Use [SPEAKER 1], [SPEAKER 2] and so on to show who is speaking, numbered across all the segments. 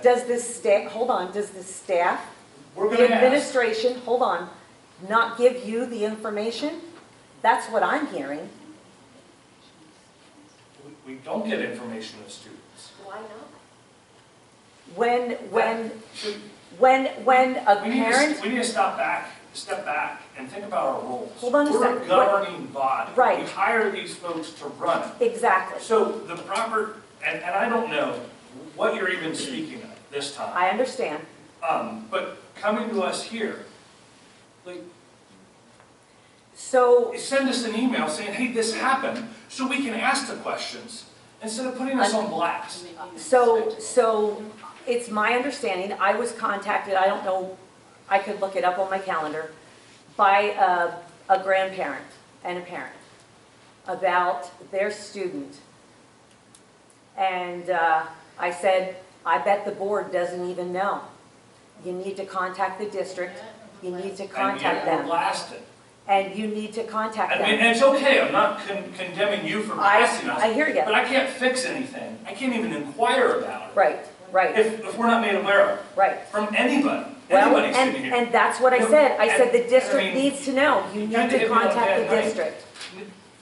[SPEAKER 1] Does this sta, hold on, does the staff,
[SPEAKER 2] We're
[SPEAKER 1] the
[SPEAKER 2] gonna ask.
[SPEAKER 1] administration, hold on, not give you the information? That's what I'm hearing.
[SPEAKER 2] We- We don't get information to students.
[SPEAKER 3] Why not?
[SPEAKER 1] When, when, when, when a
[SPEAKER 2] We need to,
[SPEAKER 1] parent,
[SPEAKER 2] we need to stop back, step back and think about our roles.
[SPEAKER 1] Hold on a
[SPEAKER 2] We're
[SPEAKER 1] second.
[SPEAKER 2] a governing body.
[SPEAKER 1] Right.
[SPEAKER 2] We hire these folks to run it.
[SPEAKER 1] exactly,
[SPEAKER 2] So the proper, and, and I don't know what you're even speaking of this time.
[SPEAKER 1] I understand.
[SPEAKER 2] Um, but coming to us here, like,
[SPEAKER 1] So,
[SPEAKER 2] send us an email saying, hey, this happened, so we can ask the questions instead of putting us on blast.
[SPEAKER 1] so, so it's my understanding, I was contacted, I don't know, I could look it up on my calendar, by a, a grandparent and a parent about their student. And uh, I said, I bet the board doesn't even know. You need to contact the district, you need to contact
[SPEAKER 2] And yet we're
[SPEAKER 1] them,
[SPEAKER 2] blasted.
[SPEAKER 1] and you need to contact
[SPEAKER 2] I mean,
[SPEAKER 1] them.
[SPEAKER 2] and it's okay, I'm not con- condemning you for
[SPEAKER 1] I,
[SPEAKER 2] blasting us.
[SPEAKER 1] I hear you,
[SPEAKER 2] But I can't fix anything. I can't even inquire about it.
[SPEAKER 1] right, right,
[SPEAKER 2] If, if we're not made aware of it,
[SPEAKER 1] right.
[SPEAKER 2] from anybody,
[SPEAKER 1] Well,
[SPEAKER 2] anybody
[SPEAKER 1] and,
[SPEAKER 2] sitting here.
[SPEAKER 1] and that's what I said, I said the
[SPEAKER 2] I
[SPEAKER 1] district
[SPEAKER 2] mean,
[SPEAKER 1] needs to know, you need
[SPEAKER 2] kinda
[SPEAKER 1] to
[SPEAKER 2] hit me on
[SPEAKER 1] contact
[SPEAKER 2] that
[SPEAKER 1] the
[SPEAKER 2] night.
[SPEAKER 1] district.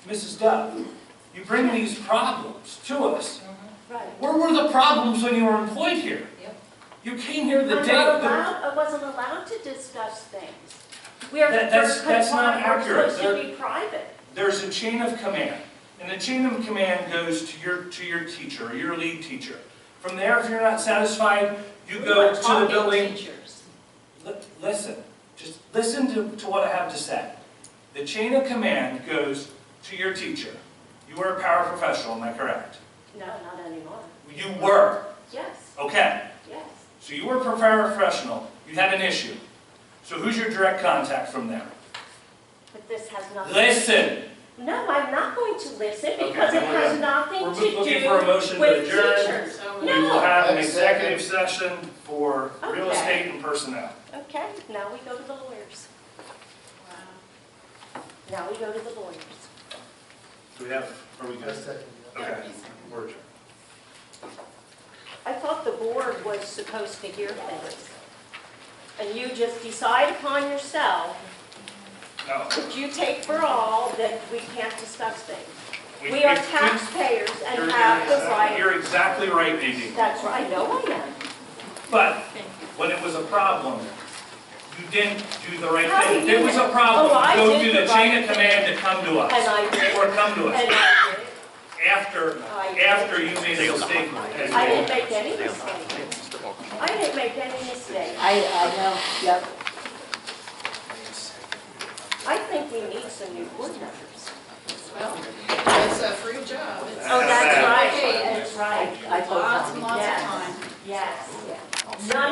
[SPEAKER 2] Mrs. Dove, you bring these problems to us.
[SPEAKER 3] Right.
[SPEAKER 2] Where were the problems when you were employed here?
[SPEAKER 4] Yep.
[SPEAKER 2] You came here
[SPEAKER 3] I'm
[SPEAKER 2] the
[SPEAKER 3] not
[SPEAKER 2] day, the-
[SPEAKER 3] allowed, I wasn't allowed to discuss things. We are,
[SPEAKER 2] That-
[SPEAKER 3] we're
[SPEAKER 2] that's- that's not
[SPEAKER 3] confined, we're
[SPEAKER 2] accurate.
[SPEAKER 3] supposed to be private.
[SPEAKER 2] there's a chain of command. And the chain of command goes to your, to your teacher, or your lead teacher. From there, if you're not satisfied, you go to the building Li- Listen, just listen to, to what I have to say. The chain of command goes to your teacher. You were a paraprofessional, am I correct?
[SPEAKER 3] No, not anymore.
[SPEAKER 2] You were,
[SPEAKER 3] Yes,
[SPEAKER 2] okay.
[SPEAKER 3] yes.
[SPEAKER 2] So you were a paraprofessional, you had an issue. So who's your direct contact from there?
[SPEAKER 3] But this has nothing.
[SPEAKER 2] Listen,
[SPEAKER 3] No, I'm not going to listen
[SPEAKER 2] Okay,
[SPEAKER 3] because it
[SPEAKER 2] then we're
[SPEAKER 3] has
[SPEAKER 2] done.
[SPEAKER 3] nothing
[SPEAKER 2] We're
[SPEAKER 3] to
[SPEAKER 2] looking
[SPEAKER 3] do
[SPEAKER 2] for a motion to
[SPEAKER 3] with
[SPEAKER 2] adjourn.
[SPEAKER 3] teachers.
[SPEAKER 4] So
[SPEAKER 2] we
[SPEAKER 3] No.
[SPEAKER 2] will have an
[SPEAKER 5] Second.
[SPEAKER 2] executive session for real
[SPEAKER 3] Okay.
[SPEAKER 2] estate and personnel.
[SPEAKER 3] Okay, now we go to the lawyers. Now we go to the lawyers.
[SPEAKER 2] Do we have, are we
[SPEAKER 5] I
[SPEAKER 2] good?
[SPEAKER 5] second that.
[SPEAKER 2] Okay, we're adjourned.
[SPEAKER 3] I thought the board was supposed to hear things. And you just decide upon yourself,
[SPEAKER 2] No.
[SPEAKER 3] if you take for all, that we can't discuss things.
[SPEAKER 2] we-
[SPEAKER 3] We are
[SPEAKER 2] we- we-
[SPEAKER 3] taxpayers
[SPEAKER 2] you're-
[SPEAKER 3] and have the
[SPEAKER 2] you're-
[SPEAKER 3] right.
[SPEAKER 2] You're exactly right, Nadine.
[SPEAKER 3] That's right, I know I am.
[SPEAKER 2] But when it was a problem, you didn't do the right
[SPEAKER 3] How
[SPEAKER 2] thing.
[SPEAKER 3] do you
[SPEAKER 2] There was a
[SPEAKER 3] know?
[SPEAKER 2] problem,
[SPEAKER 3] Oh, I
[SPEAKER 2] go
[SPEAKER 3] did
[SPEAKER 2] to
[SPEAKER 3] the
[SPEAKER 2] the chain
[SPEAKER 3] right
[SPEAKER 2] of command to come to
[SPEAKER 3] And
[SPEAKER 2] us,
[SPEAKER 3] I did.
[SPEAKER 2] or come to us,
[SPEAKER 3] And I did.
[SPEAKER 2] after,
[SPEAKER 3] I did.
[SPEAKER 2] after you made a mistake.
[SPEAKER 3] I didn't make any mistake. I didn't make any mistake.
[SPEAKER 4] I, I know, yep.
[SPEAKER 3] I think we need some new board members.
[SPEAKER 4] Well, it's a free job. It's-
[SPEAKER 3] Oh, that's
[SPEAKER 2] Yeah.
[SPEAKER 3] right, that's right.
[SPEAKER 4] I told
[SPEAKER 3] Yes.
[SPEAKER 4] Lots and lots of time.
[SPEAKER 3] Yes.
[SPEAKER 4] Yeah.
[SPEAKER 3] None